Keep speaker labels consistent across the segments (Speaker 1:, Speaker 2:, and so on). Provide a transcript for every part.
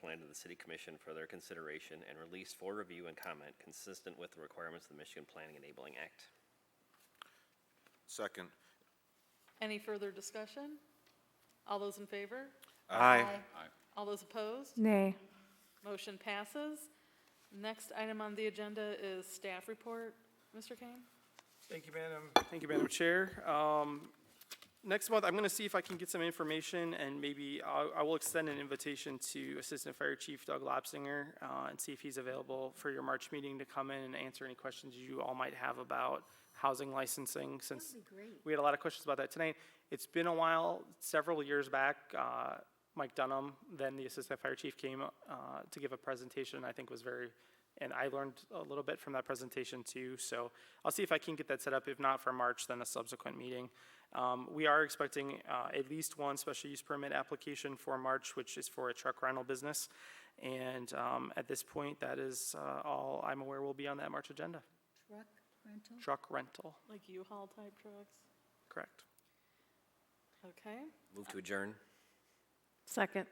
Speaker 1: plan to the city commission for their consideration and released for review and comment consistent with the requirements of the Michigan Planning Enabling Act.
Speaker 2: Second.
Speaker 3: Any further discussion? All those in favor?
Speaker 2: Aye.
Speaker 3: All those opposed?
Speaker 4: Nay.
Speaker 3: Motion passes. Next item on the agenda is staff report. Mr. Kane?
Speaker 5: Thank you, Madam. Thank you, Madam Chair. Um, Next month, I'm going to see if I can get some information and maybe I'll- I will extend an invitation to Assistant Fire Chief Doug Lapsinger uh, and see if he's available for your March meeting to come in and answer any questions you all might have about housing licensing since we had a lot of questions about that tonight. It's been a while, several years back, uh, Mike Dunham, then the Assistant Fire Chief, came uh, to give a presentation I think was very and I learned a little bit from that presentation too. So I'll see if I can get that set up. If not for March, then a subsequent meeting. Um, we are expecting uh, at least one special use permit application for March, which is for a truck rental business. And um, at this point, that is uh, all I'm aware will be on that March agenda.
Speaker 6: Truck rental?
Speaker 5: Truck rental,
Speaker 3: Like U-Haul type trucks?
Speaker 5: correct?
Speaker 3: Okay.
Speaker 1: Move to adjourn.
Speaker 4: Second.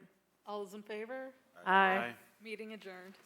Speaker 3: All those in favor?
Speaker 4: Aye.
Speaker 3: Meeting adjourned.